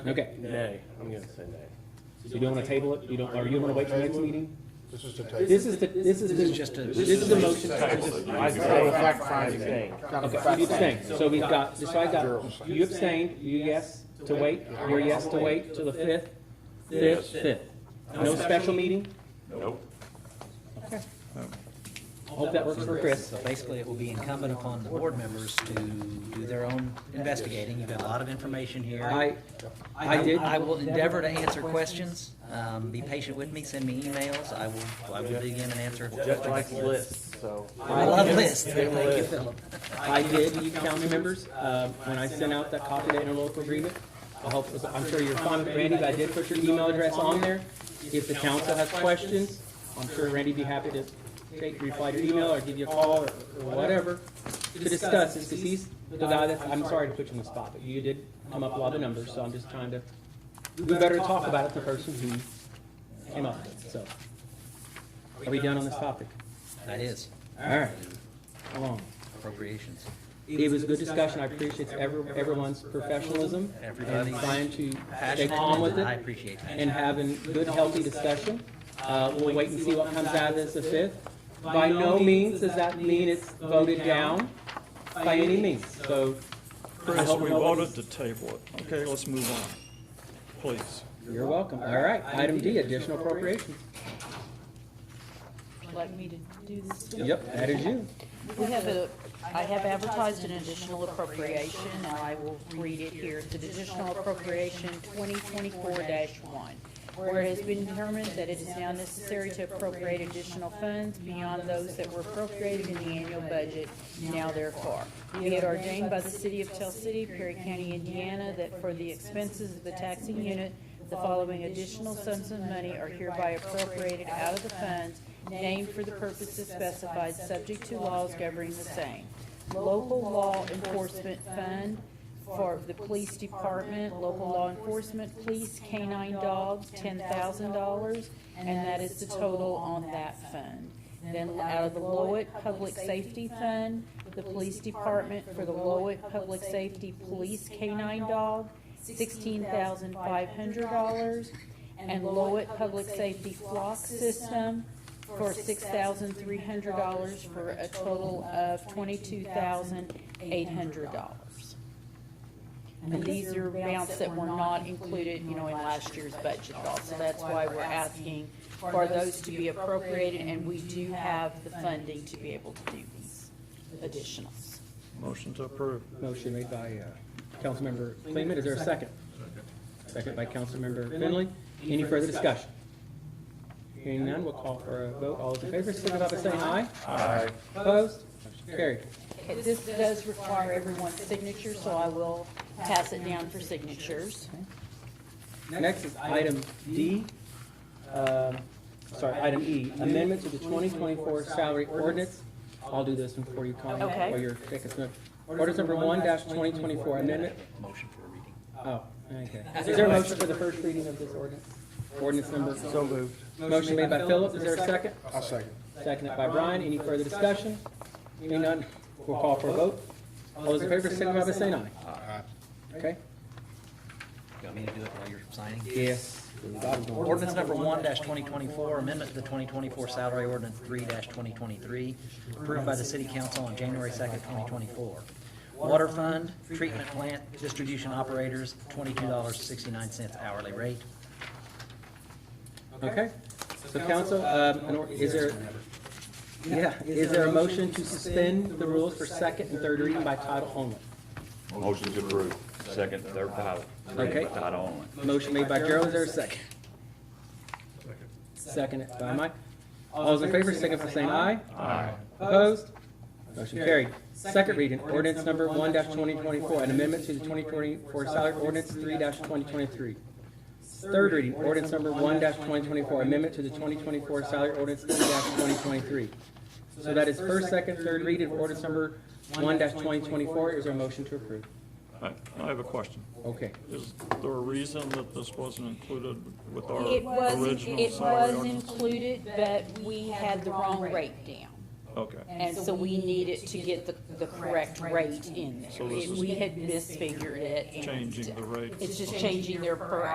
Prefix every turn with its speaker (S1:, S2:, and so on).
S1: Okay.
S2: Nay, I'm gonna say nay.
S1: You don't want to table it? You don't, or you want to wait till next meeting?
S2: This is to take.
S1: This is the, this is the,
S3: Just a,
S1: this is the motion.
S2: I say fact finding thing.
S1: Okay, you abstained. So we've got, so I got, you abstained, you yes to wait, your yes to wait till the fifth, fifth, fifth. No special meeting?
S4: Nope.
S1: Hope that works for Chris.
S3: so basically it will be incumbent upon the board members to do their own investigating. You've got a lot of information here.
S1: I, I did.
S3: I will endeavor to answer questions. Um, be patient with me, send me emails. I will, I will dig in and answer.
S2: Just like lists, so.
S3: I love lists. Thank you, Philip.
S1: I did, you county members, um, when I sent out that copy of the interlocal agreement, I hope, I'm sure you're fine with Randy, but I did put your email address on there. If the council has questions, I'm sure Randy'd be happy to take, reply to your email or give you a call or or whatever to discuss this, because he's the guy that's, I'm sorry to put you on the spot, but you did come up with a lot of numbers, so I'm just trying to, we better to talk about it, the person who came up with it, so. Are we done on this topic?
S3: That is
S1: All right, come on.
S3: appropriations.
S1: It was a good discussion. I appreciate every, everyone's professionalism and
S3: Everybody's
S1: trying to stay
S3: Passionate,
S1: calm with
S3: I
S1: it
S3: appreciate that.
S1: and having good, healthy discussion. Uh, we'll wait and see what comes out of this the fifth. By no means does that mean it's voted down by any means, so. I
S5: Chris,
S1: hope
S5: we
S1: nobody-
S5: voted to table it. Okay, let's move on, please.
S1: You're welcome. All right, item D, additional appropriations.
S6: like me to do this too?
S1: Yep, that is you.
S6: We have a, I have advertised an additional appropriation, and I will read it here. It's an additional appropriation twenty twenty-four one. Where it has been determined that it is now necessary to appropriate additional funds beyond those that were appropriated in the annual budget, now therefore. Be it ordained by the city of Tell City, Perry County, Indiana, that for the expenses of the taxing unit, the following additional sums of money are hereby appropriated out of the funds named for the purposes specified, subject to laws governing the same. Local Law Enforcement Fund for the Police Department, Local Law Enforcement, Police Canine Dogs, ten thousand dollars, and that is the total on that fund. Then out of the Lowett Public Safety Fund, the Police Department for the Lowett Public Safety Police Canine Dog, sixteen thousand five hundred dollars. And Lowett Public Safety Flock System for six thousand three hundred dollars for a total of twenty-two thousand eight hundred dollars. And these are amounts that were not included, you know, in last year's budget at all, so that's why we're asking for those to be appropriated, and we do have the funding to be able to do these additionals.
S5: Motion to approve.
S1: Motion made by uh, Councilmember Clayman. Is there a second? Second by Councilmember Finley. Any further discussion? Hearing none, we'll call for a vote. All those in favor, signify by saying aye. Aye. Opposed? Motion Carried.
S6: Okay, this does require everyone's signature, so I will pass it down for signatures.
S1: Next is item D, um, sorry, item E, amendment to the 2024 salary ordinance. I'll do this one for you, Connie,
S6: Okay.
S1: while you're taking some. Ordinance number one dash 2024 amendment.
S3: Motion for reading.
S1: Oh, okay. Is there a motion for the first reading of this ordinance? Ordinance number.
S2: So moved.
S1: Motion made by Philip, is there a second?
S2: I'll second.
S1: Seconded by Brian, any further discussion? Hearing none, we'll call for a vote. All those in favor, signify by saying aye. Okay?
S3: You want me to do it while you're signing?
S1: Yes.
S3: Ordinance number one twenty twenty-four, amendment to the twenty twenty-four salary ordinance three twenty twenty-three, approved by the city council on January second, twenty twenty-four. Water fund, treatment plant, distribution operators, twenty-two dollars sixty-nine cents hourly rate.
S1: Okay, so council, um, an or- is there, yeah, is there a motion to suspend the rules for second and third reading by title only?
S4: Motion to approve. Second, third title.
S1: Okay.
S4: Title only.
S1: Motion made by Gerald, is there a second? Seconded by Mike. All those in favor, signify by saying aye.
S4: Aye.
S1: Opposed? Motion carried. Second reading, ordinance number one twenty twenty-four, an amendment to the twenty twenty-four salary ordinance three twenty twenty-three. Third reading, ordinance number one twenty twenty-four, amendment to the twenty twenty-four salary ordinance three twenty twenty-three. So that is first, second, third reading, of ordinance number one twenty twenty-four. Is there a motion to approve?
S5: I I have a question.
S1: Okay.
S5: Is there a reason that this wasn't included with our
S6: It was,
S5: original
S6: it
S5: salary
S6: was
S5: ordinance?
S6: included, but we had the wrong rate down.
S5: Okay.
S6: And so we needed to get the, the correct rate in there.
S5: this
S6: We had misfigured it. and
S5: Changing the rate.
S6: It's just changing their per